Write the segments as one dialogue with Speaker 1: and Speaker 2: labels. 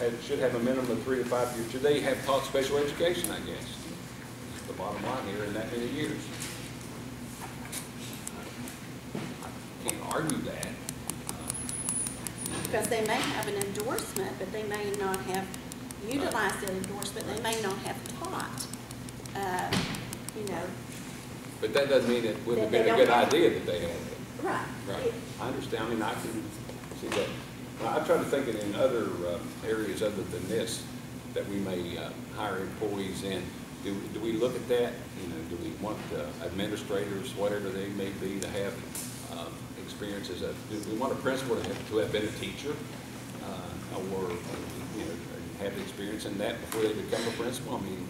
Speaker 1: had- should have a minimum of three to five years. Should they have taught special education, I guess? That's The bottom line here, in that many years. Can't argue that.
Speaker 2: Because they may have an endorsement, but they may not have utilized that endorsement, they may not have taught, uh, you know.
Speaker 1: But that doesn't mean it wouldn't have
Speaker 2: That they
Speaker 1: been a good
Speaker 2: don't have-
Speaker 1: idea that they had it.
Speaker 2: Right.
Speaker 1: Right, I understand, I mean, I can see that. I- I'm trying to think in other um, areas other than this, that we may uh, hire employees in. Do, do we look at that? You know, do we want uh, administrators, whatever they may be, to have um, experiences of, do we want a principal to have, to have been a teacher? uh, Or, you know, have experience in that before they become a principal? I mean,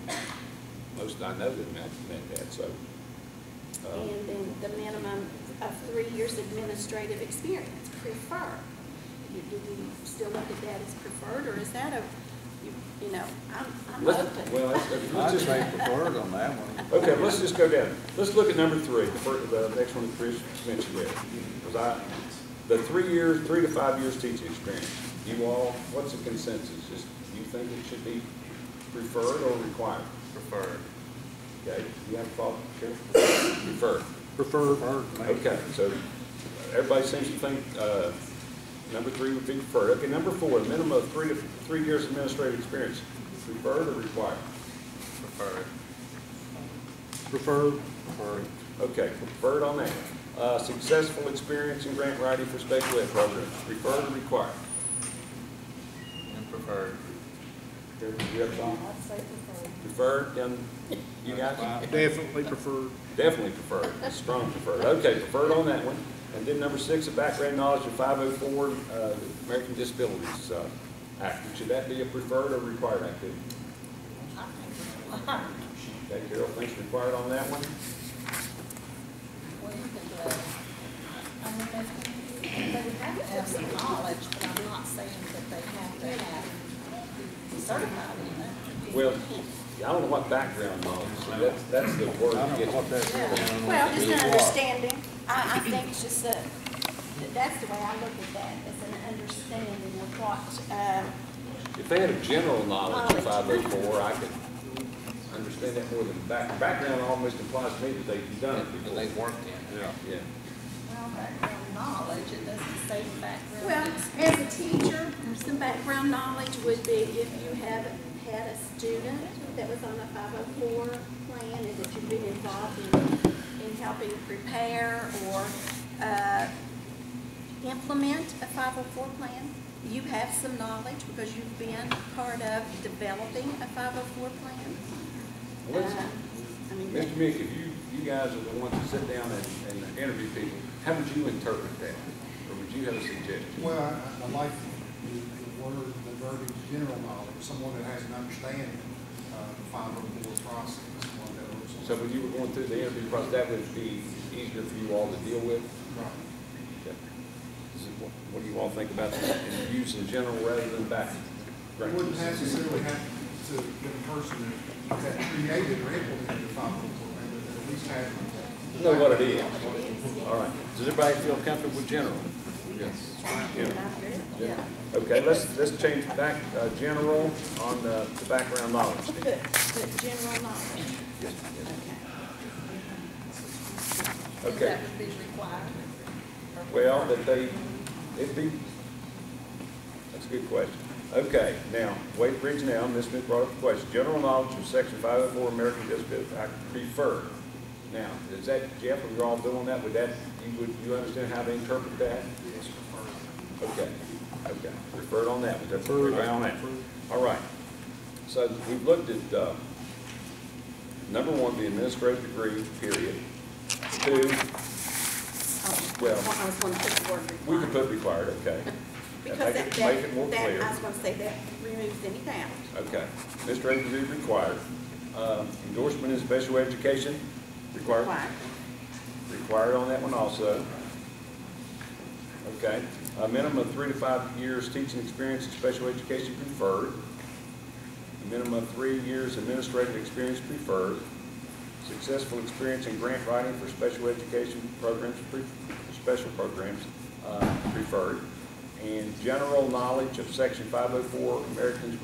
Speaker 1: most I know that meant meant that, so. uh,
Speaker 2: And then the minimum of three years administrative experience, prefer. You- Do we still look at that as preferred, or is that a, you you know, I'm, I'm
Speaker 1: Let's-
Speaker 2: open.
Speaker 1: Well, let's-
Speaker 3: I'd
Speaker 1: let's just
Speaker 3: say preferred on that one.
Speaker 1: Okay, let's just go down. Let's look at number three, the fir- the next one that Chris mentioned there. 'Cause I- the three years, three to five years teaching experience. You all, what's the consensus? Is, you think it should be preferred or required?
Speaker 4: preferred.
Speaker 1: Okay, you have a thought, Sheriff? Preferred.
Speaker 3: Preferred.
Speaker 1: Okay, so everybody seems to think, uh, number three would be preferred. Okay, number four, a minimum of three to, three years administrative experience. Preferred or required?
Speaker 4: Preferred.
Speaker 3: Preferred.
Speaker 1: Okay, preferred on that. Uh, successful experience in grant writing for special ed programs, preferred or required?
Speaker 4: And preferred.
Speaker 1: Here, you have some? Preferred, then, you guys?
Speaker 3: Definitely preferred.
Speaker 1: Definitely preferred, strong preferred. Okay, preferred on that one. And then number six, a background knowledge of five oh four, uh, American Disabilities, uh, Act. Should that be a preferred or required activity? Okay, Carol thinks required on that one.
Speaker 5: Well, you could, uh, I mean, they, they would have to have some knowledge, but I'm not saying that they have to have be certified in it.
Speaker 1: Well, I don't know what background knowledge, so that's, that's the
Speaker 3: I
Speaker 1: word. that
Speaker 3: don't know
Speaker 1: gets-
Speaker 3: what that's.
Speaker 2: Well, just an understanding, I, I think it's just a, that's the way I look at that, as an understanding of what, uh,
Speaker 1: If they had a general knowledge of five oh
Speaker 2: Knowledge.
Speaker 1: four, I could understand that more than back, background almost implies to me that they've done it
Speaker 4: And
Speaker 1: before.
Speaker 4: they worked in.
Speaker 3: Yeah.
Speaker 1: Yeah,
Speaker 5: Well, background knowledge, it doesn't say background.
Speaker 2: Well, as a teacher, some background knowledge would be if you have had a student that was on a 504 plan and that you've been involved in, in helping prepare or uh, implement a 504 plan, you have some knowledge because you've been part of developing a 504 plan.
Speaker 1: Well, let's-
Speaker 2: Uh, I mean,
Speaker 1: Mr. Meek, if you, you guys are the ones that sit down and, and interview people, how would you interpret that? Or would you have a suggestion?
Speaker 6: Well, I, I like the, the word, the verbiage, general knowledge, someone that has an understanding of the five oh four process, one that looks.
Speaker 1: So when you were going through the interview process, that would be easier for you all to deal with?
Speaker 6: Right.
Speaker 1: Okay. Is it- What what do you all think about that, and use in general rather than back?
Speaker 6: You wouldn't necessarily have to get a person that that created or implemented the five oh four, but at least have.
Speaker 1: Know what it is. All right, does everybody feel comfortable with general?
Speaker 4: Yes.
Speaker 1: Yeah.
Speaker 2: Yeah.
Speaker 1: Okay, let's, let's change back, uh, general on the, the background knowledge.
Speaker 2: Put, put general knowledge.
Speaker 1: Okay,
Speaker 5: That would be required.
Speaker 1: well, that they, it'd be, that's a good question. Okay, now, Wade Bridge now, Ms. Smith brought up the question, general knowledge of section five oh four American Disability Act preferred. Now, is that, Jeff, are you all doing that, would that, you would, you understand how to interpret that?
Speaker 6: Yes, preferred.
Speaker 1: Okay, okay, referred on that, that's
Speaker 3: Referred.
Speaker 1: referred on that. All right, so we've looked at, uh, number one, the administrative degree, period. Two,
Speaker 2: Oh,
Speaker 1: Well-
Speaker 2: I was going to put the word
Speaker 1: we
Speaker 2: required.
Speaker 1: could put required, okay.
Speaker 2: Because
Speaker 1: Make
Speaker 2: that,
Speaker 1: it- Make it more
Speaker 2: that, that,
Speaker 1: clear.
Speaker 2: I was gonna say, that removes any doubt.
Speaker 1: Okay, administrative degree required. Um, Endorsement in special education, required,
Speaker 2: Why?
Speaker 1: required on that one also. Okay, a minimum of three to five years teaching experience in special education preferred. A minimum of three years administrative experience preferred. Successful experience in grant writing for special education programs, pre- special programs uh, preferred. and general knowledge of section five oh four Americans